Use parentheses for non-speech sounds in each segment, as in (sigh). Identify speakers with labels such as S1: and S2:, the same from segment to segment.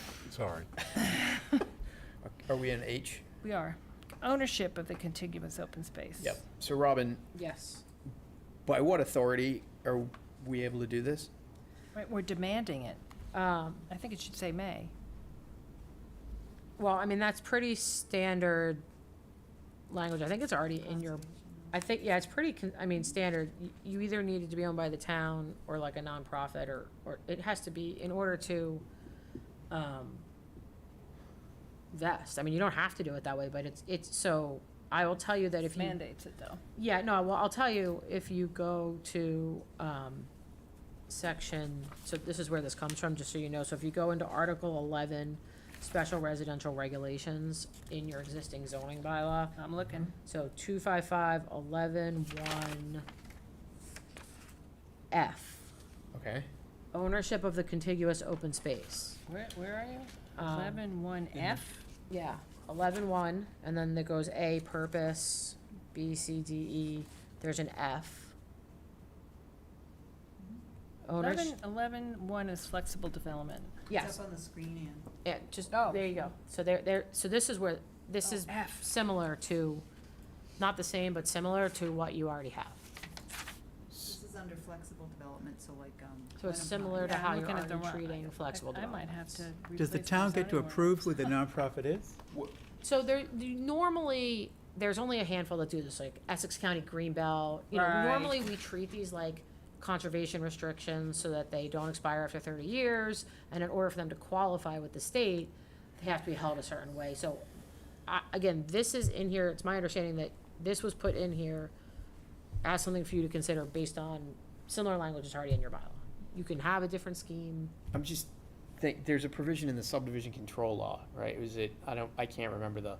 S1: (laughs)
S2: Sorry.
S1: Are we in H?
S3: We are. Ownership of the contiguous open space.
S1: Yep. So Robin,
S4: Yes.
S1: by what authority are we able to do this?
S3: Right, we're demanding it.
S4: Um,
S3: I think it should say may.
S4: Well, I mean, that's pretty standard language. I think it's already in your, I think, yeah, it's pretty, con- I mean, standard. Y- You either need it to be owned by the town or like a nonprofit or, or it has to be in order to, um, vest. I mean, you don't have to do it that way, but it's, it's, so I will tell you that if you.
S3: Mandates it, though.
S4: Yeah, no, well, I'll tell you, if you go to, um, section, so this is where this comes from, just so you know, so if you go into Article eleven, special residential regulations in your existing zoning bylaw,
S3: I'm looking.
S4: so two five five eleven one F,
S1: Okay.
S4: ownership of the contiguous open space.
S3: Where, where are you?
S4: Um,
S3: Eleven one F?
S4: Yeah, eleven one, and then there goes A, purpose, B, C, D, E, there's an F. Owners,
S3: Eleven, eleven one is flexible development.
S4: yes,
S5: up on the screen, Ann.
S4: yeah, just,
S3: Oh.
S4: there you go, so there, there, so this is where, this
S3: Oh,
S4: is
S3: F.
S4: similar to, not the same, but similar to what you already have.
S5: This is under flexible development, so like, um.
S4: So it's
S5: when I'm
S4: similar to
S3: Yeah, I'm
S4: how you're
S3: looking at the
S4: already
S3: wrong-
S4: treating
S3: I-
S4: flexible
S3: I might
S4: developments.
S3: have to
S2: Does the
S3: replace
S2: town get to
S3: zoning ordinance.
S2: approve who the nonprofit is?
S4: So there, you- normally, there's only a handful that do this, like Essex County Greenbelt, you know,
S3: Right.
S4: normally we treat these like conservation restrictions so that they don't expire after thirty years, and in order for them to qualify with the state, they have to be held a certain way, so, I, again, this is in here, it's my understanding that this was put in here as something for you to consider based on similar language that's already in your bylaw. You can have a different scheme,
S1: I'm just think there's a provision in the subdivision control law, right? Was it I don't I can't remember the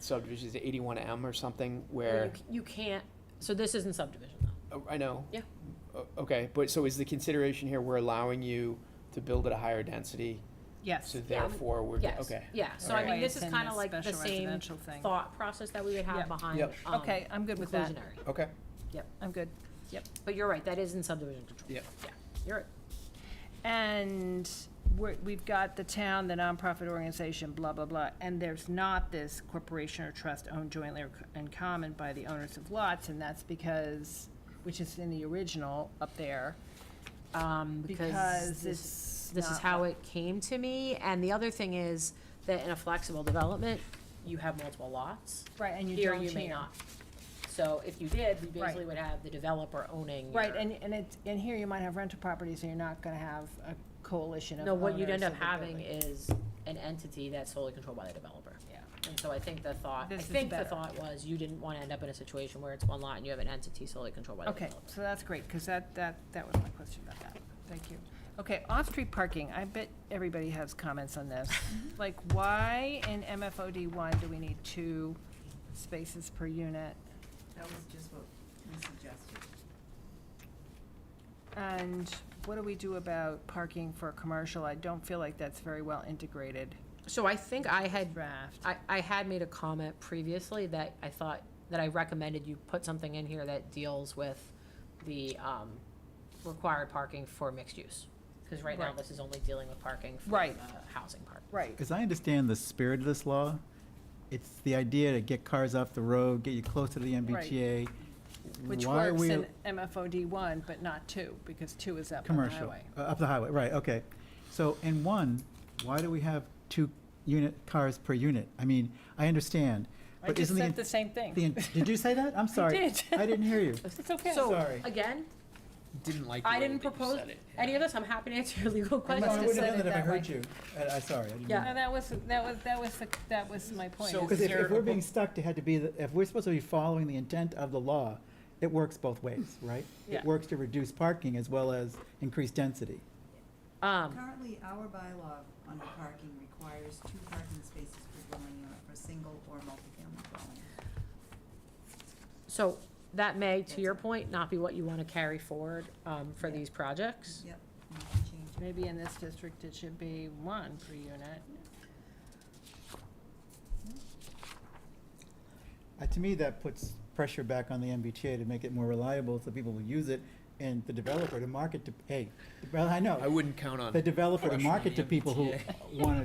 S1: subdivision is it 81M or something
S4: or
S1: where
S4: you, c- you can't, so this isn't subdivision though.
S1: Oh, I know.
S4: Yeah.
S1: O- Okay, but so is the consideration here we're allowing you to build at a higher density,
S3: Yes.
S1: so therefore we're
S4: Yes.
S1: okay.
S4: Yeah, so I
S1: Alright.
S4: mean, this is
S3: It's in
S4: kind of
S3: this
S4: like the
S3: special
S4: same
S3: residential thing.
S4: thought process that we would have
S3: Yep.
S4: behind,
S1: Yep.
S4: um,
S3: Okay, I'm good with that.
S4: inclusionary.
S1: Okay.
S3: I'm good.
S4: But you're right, that is in subdivision control.
S1: Yep.
S4: Yeah, you're right.
S3: And we're, we've got the town, the nonprofit organization, blah, blah, blah, and there's not this corporation or trust owned jointly or co- in common by the owners of lots, and that's because, which is in the original up there,
S4: Um, because
S3: because
S4: this,
S3: it's
S4: this is
S3: not-
S4: how it came to me. And the other thing is that in a flexible development, you have multiple lots.
S3: Right, and you
S4: Here,
S3: don't
S4: you may
S3: here.
S4: not. So if you did, we basically
S3: Right.
S4: would have the developer owning
S3: Right,
S4: your-
S3: and, and it's, and here you might have rental properties, and you're not gonna have a coalition of
S4: No, what you'd
S3: owners
S4: end up
S3: of the
S4: having
S3: building.
S4: is an entity that's solely controlled by the developer.
S3: Yeah.
S4: And so I think the thought, I
S3: This is
S4: think the
S3: better.
S4: thought was you didn't wanna end up in a situation where it's one lot and you have an entity solely controlled by the
S3: Okay,
S4: developer.
S3: so that's great, because that, that, that was my question about that. Thank you. Okay, off-street parking, I bet everybody has comments on this. Like, why in MFOD one do we need two spaces per unit?
S5: That was just what we suggested.
S3: And what do we do about parking for commercial? I don't feel like that's very well integrated
S4: So I think I had,
S3: draft.
S4: I, I had made a comment previously that I thought, that I recommended you put something in here that deals with the, um, required parking for mixed use. Cause right now,
S3: Right.
S4: this is only dealing with parking for, uh,
S3: Right.
S4: housing park.
S3: Right,
S2: As I understand the spirit of this law, it's the idea to get cars off the road, get you closer to the MBTA.
S3: which
S2: Why are
S3: works
S2: we-
S3: in MFOD one, but not two, because two is up on the highway.
S2: Commercial, uh, up the highway, right, okay. So, in one, why do we have two unit, cars per unit? I mean, I understand,
S3: I
S2: but
S3: just
S2: isn't the.
S3: said
S2: in-
S3: the same thing.
S2: the in- Did you say
S3: (laughs)
S2: that? I'm sorry.
S3: did.
S2: I didn't hear
S3: (laughs)
S2: you.
S3: It's okay.
S4: So,
S2: Sorry.
S4: again,
S1: Didn't like the
S4: I
S1: way
S4: didn't
S1: that you
S4: propose
S1: said it.
S4: any of this, I'm happy to answer your legal
S2: I
S4: questions.
S2: must- I
S3: just
S2: wouldn't
S3: said
S2: have done
S3: it
S2: that if I
S3: that way.
S2: heard you. Uh, I, I'm sorry. I didn't
S4: Yeah.
S2: mean
S3: No, that was, that was, that was, the- that was my point.
S1: So
S3: is
S2: Because if,
S1: there
S2: if we're
S1: a
S2: being
S1: propo-
S2: stuck to had to be, the- if we're supposed to be following the intent of the law, it works both ways, right?
S3: Yeah.
S2: It works to reduce parking as well as increase density.
S4: Um,
S5: Currently, our bylaw under parking requires two parking spaces per dwelling unit for single or multifamily dwelling.
S4: so that may, to your point, not be what you want to carry forward, um, for these projects.
S5: Yep, we can change it.
S3: Maybe in this district, it should be one per unit.
S2: Uh, to me, that puts pressure back on the MBTA to make it more reliable so people will use it and the developer to market to, hey, well, I
S1: I
S2: know,
S1: wouldn't count on.
S2: the developer to
S1: pressure on
S2: market
S1: the
S2: to people who
S1: MBTA.
S2: want to